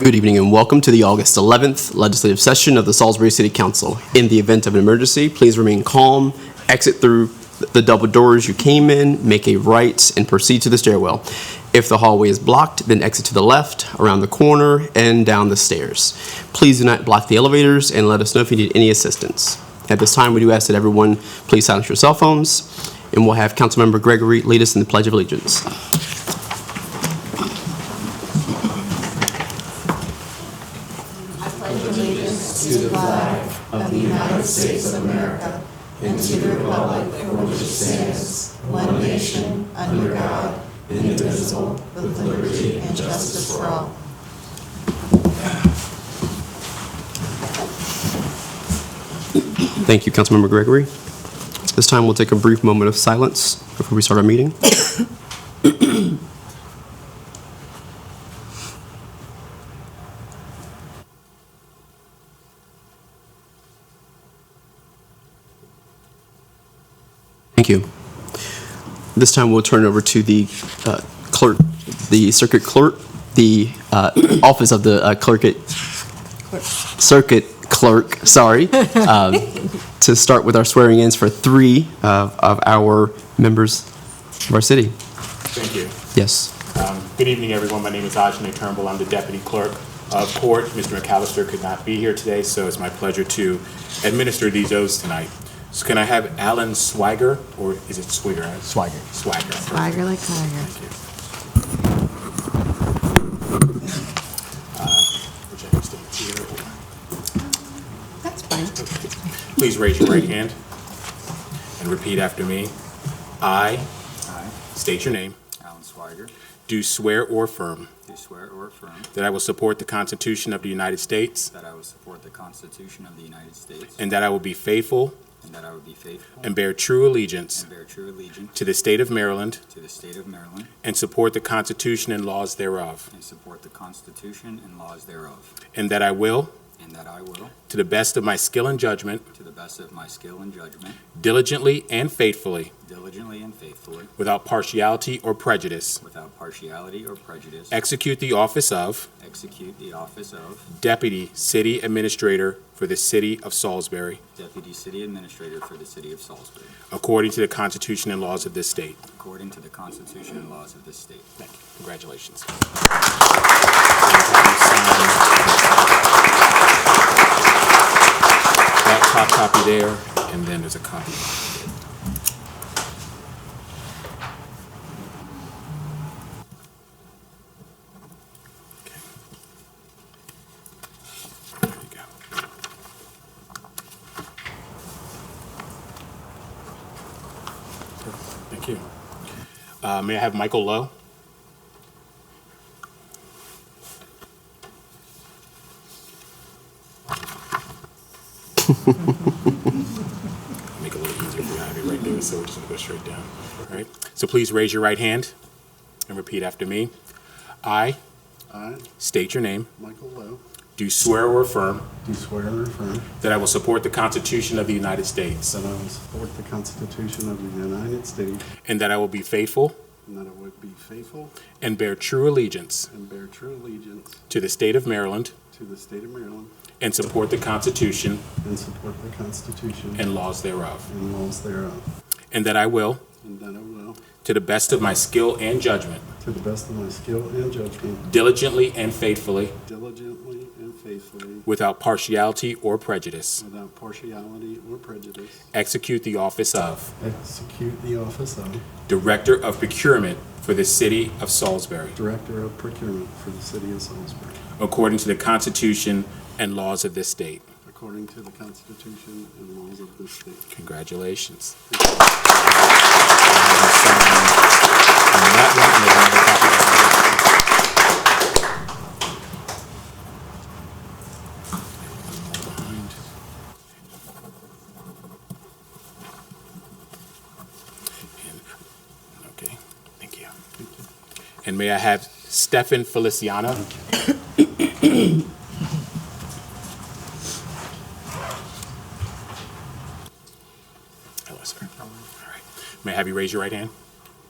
Good evening and welcome to the August 11th legislative session of the Salisbury City Council. In the event of an emergency, please remain calm, exit through the double doors you came in, make a right, and proceed to the stairwell. If the hallway is blocked, then exit to the left, around the corner, and down the stairs. Please do not block the elevators and let us know if you need any assistance. At this time, we do ask that everyone please silence your cell phones, and we'll have Councilmember Gregory lead us in the Pledge of Allegiance. Thank you, Councilmember Gregory. This time, we'll take a brief moment of silence before we start our meeting. Thank you. This time, we'll turn it over to the uh, clerk, the circuit clerk, the uh, office of the uh, clerk at, circuit clerk, sorry, um, to start with our swearing-ins for three of of our members of our city. Thank you. Yes. Um, Good evening, everyone. My name is Ajay Turnbull. I'm the Deputy Clerk of Court. Mr. McAllister could not be here today, so it's my pleasure to administer these oaths tonight. So can I have Alan Swiger, or is it Swiger? Swiger. Swiger. Tiger like tiger. Thank you. Uh, which I can stand here. That's fine. Please raise your right hand and repeat after me. I, I, state your name, Alan Swiger, do swear or affirm do swear or affirm that I will support the Constitution of the United States that I will support the Constitution of the United States And that I will be faithful and that I will be faithful and bear true allegiance and bear true allegiance to the state of Maryland to the state of Maryland and support the Constitution and laws thereof. and support the Constitution and laws thereof, And that I will, and that I will, to the best of my skill and judgment, to the best of my skill and judgment, diligently and faithfully, diligently and faithfully, without partiality or prejudice, without partiality or prejudice, execute the office of execute the office of Deputy City Administrator for the City of Salisbury, Deputy City Administrator for the City of Salisbury, according to the Constitution and laws of this state. according to the Constitution and laws of this state. Thank you. Congratulations. That top copy there, and then there's a copy. Okay. There you go. Thank you. Uh, May I have Michael Lowe? Make it a little easier if we have it right there, so we're just gonna go straight down. All right, so please raise your right hand and repeat after me. I I, state your name, Michael Lowe, do swear or affirm do swear or affirm that I will support the Constitution of the United States that I will support the Constitution of the United States and that I will be faithful and that I would be faithful and bear true allegiance and bear true allegiance to the state of Maryland to the state of Maryland and support the Constitution and support the Constitution and laws thereof, and laws thereof, and that I will, and that I will, to the best of my skill and judgment, to the best of my skill and judgment, diligently and faithfully, diligently and faithfully, without partiality or prejudice, without partiality or prejudice, execute the office of execute the office of Director of Procurement for the City of Salisbury, Director of Procurement for the City of Salisbury, according to the Constitution and laws of this state. according to the Constitution and laws of this state. Congratulations. And that one, and there's another copy of that. And- Okay, thank you. And may I have Stefan Feliciano? Hello, sir. All right. May I have you raise your right hand?